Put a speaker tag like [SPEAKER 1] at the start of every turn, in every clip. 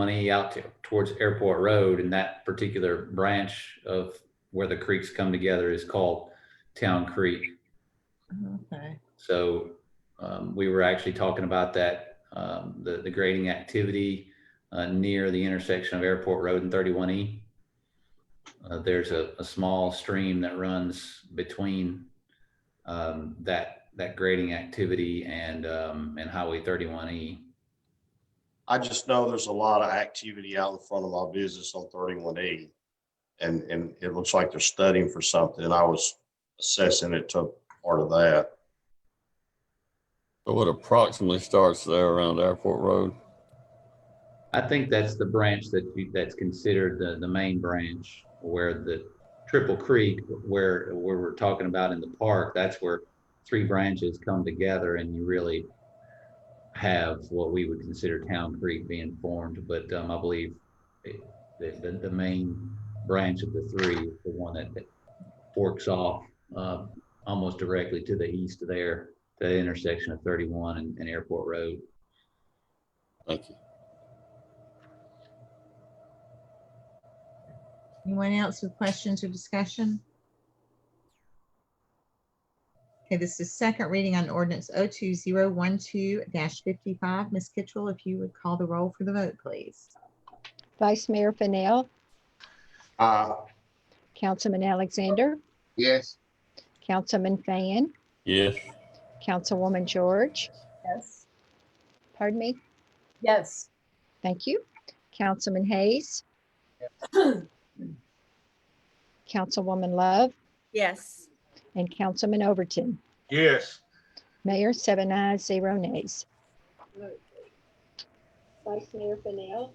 [SPEAKER 1] money out to, towards Airport Road and that particular branch of where the creeks come together is called Town Creek.
[SPEAKER 2] Okay,
[SPEAKER 1] So um, we were actually talking about that, um, the, the grading activity uh, near the intersection of Airport Road and 31E. Uh, There's a, a small stream that runs between um, that, that grading activity and, um, and Highway E. 31E.
[SPEAKER 3] I just know there's a lot of activity out in front of my business on thirty-one E. And, and it looks like they're studying for something. I was assessing it to part of that.
[SPEAKER 4] So it approximately starts there around Airport Road.
[SPEAKER 1] I think that's the branch that you, that's considered the, the main branch where the Triple Creek, where, where we're talking about in the park, that's where three branches come together and you really have what we would consider Town Creek being formed, but, um, I believe it- the, the, the main branch of the three, is the one that that forks off, uh, almost directly to the east there, the intersection of thirty-one and, and Airport Road.
[SPEAKER 4] Thank you.
[SPEAKER 2] anyone else with questions or discussion? Okay, this is second reading on ordinance 02012-55. Ms. Kitchell, if you would call the roll for the vote, please.
[SPEAKER 5] Vice Mayor Fennell,
[SPEAKER 3] Uh,
[SPEAKER 5] Councilman Alexander,
[SPEAKER 6] yes,
[SPEAKER 5] Councilman Fan,
[SPEAKER 4] Yes,
[SPEAKER 5] Councilwoman George,
[SPEAKER 7] Yes.
[SPEAKER 5] pardon me,
[SPEAKER 7] Yes.
[SPEAKER 5] thank you, Councilman Hayes, Councilwoman Love,
[SPEAKER 7] Yes.
[SPEAKER 5] and Councilman Overton.
[SPEAKER 8] yes,
[SPEAKER 5] Mayor, seven ayes, zero nays. Vice Mayor Fennell.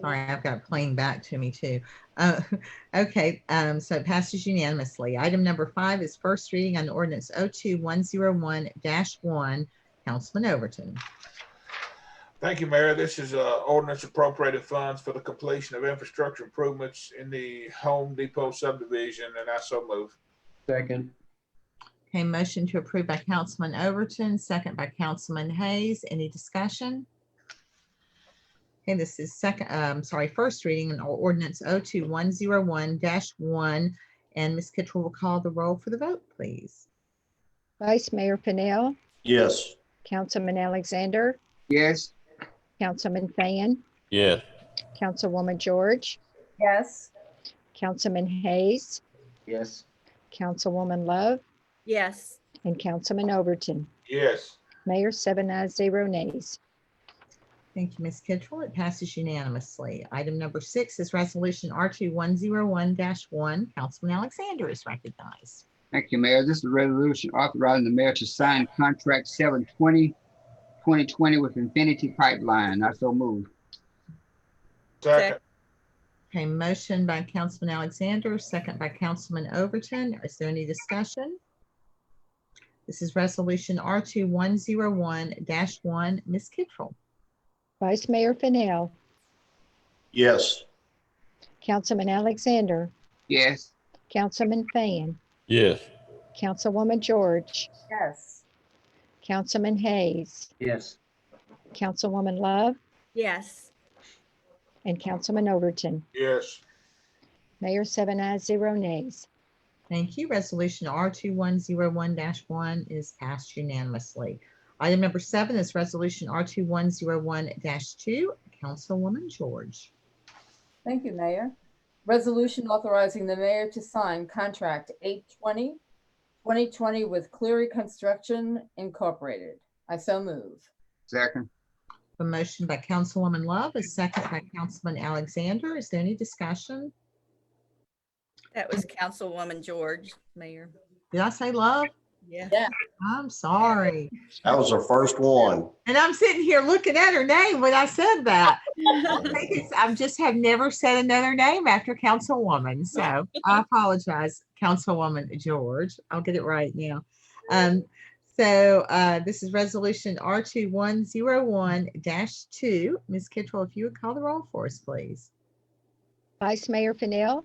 [SPEAKER 2] Sorry, I've got playing back to me too. Uh, okay, um, so it passes unanimously. Item number five is first reading on ordinance 02101-1. Councilman Overton.
[SPEAKER 8] thank you, Mayor. This is uh ordinance appropriated funds for the completion of infrastructure improvements in the Home Depot subdivision, and I so move.
[SPEAKER 9] second,
[SPEAKER 2] Okay, motion to approve by Councilman Overton, second by Councilman Hayes. Any discussion? Okay, this is second, um, sorry, first reading on ordinance 02101-1. And Ms. Kitchell will call the roll for the vote, please.
[SPEAKER 5] Vice Mayor Fennell,
[SPEAKER 3] yes,
[SPEAKER 5] Councilman Alexander,
[SPEAKER 6] yes,
[SPEAKER 5] Councilman Fan,
[SPEAKER 4] yes,
[SPEAKER 5] Councilwoman George,
[SPEAKER 7] Yes.
[SPEAKER 5] Councilman Hayes,
[SPEAKER 6] yes,
[SPEAKER 5] Councilwoman Love,
[SPEAKER 7] Yes.
[SPEAKER 5] and Councilman Overton.
[SPEAKER 8] Yes,
[SPEAKER 5] Mayor, seven ayes, zero nays.
[SPEAKER 2] Thank you, Ms. Kitchell. It passes unanimously. Item number six is resolution R2101-1. Councilman Alexander is recognized.
[SPEAKER 6] thank you, Mayor. This is a resolution authorizing the mayor to sign contract 720 2020 with Infinity Pipeline. I so move.
[SPEAKER 8] second,
[SPEAKER 2] Okay, motion by Councilman Alexander, second by Councilman Overton. Is there any discussion? This is resolution R two one zero one one. Ms. Kittrell.
[SPEAKER 5] Vice Mayor Fennell,
[SPEAKER 3] yes,
[SPEAKER 5] Councilman Alexander,
[SPEAKER 6] Yes,
[SPEAKER 5] Councilman Fan,
[SPEAKER 4] yes,
[SPEAKER 5] Councilwoman George,
[SPEAKER 7] Yes.
[SPEAKER 5] Councilman Hayes,
[SPEAKER 9] yes,
[SPEAKER 5] Councilwoman Love,
[SPEAKER 7] Yes.
[SPEAKER 5] and Councilman Overton.
[SPEAKER 8] yes,
[SPEAKER 5] Mayor, seven ayes, zero nays.
[SPEAKER 2] Thank you. Resolution R two one zero one one is passed unanimously. Item number seven is resolution R two one zero one two. Councilwoman George.
[SPEAKER 10] Thank you, Mayor. Resolution authorizing the mayor to sign contract 820, 2020 with Cleary Construction Incorporated. I so move.
[SPEAKER 6] second,
[SPEAKER 2] A motion by Councilwoman Love, a second by Councilman Alexander. Is there any discussion?
[SPEAKER 7] That was Councilwoman George, Mayor.
[SPEAKER 2] Did I say Love?
[SPEAKER 7] Yeah.
[SPEAKER 2] I'm sorry.
[SPEAKER 3] that was our first one.
[SPEAKER 2] And I'm sitting here looking at her name when I said that. I think it's- I'm just have never said another name after Councilwoman. So I apologize, Councilwoman George. I'll get it right now. Um, so uh, this is resolution R two one zero one two. Ms. Kittrell, if you would call the roll for us, please.
[SPEAKER 5] Vice Mayor Fennell,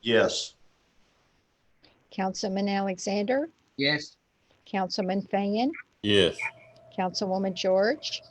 [SPEAKER 3] Yes,
[SPEAKER 5] Councilman Alexander,
[SPEAKER 6] yes,
[SPEAKER 5] Councilman Fan,
[SPEAKER 4] yes,
[SPEAKER 5] Councilwoman George,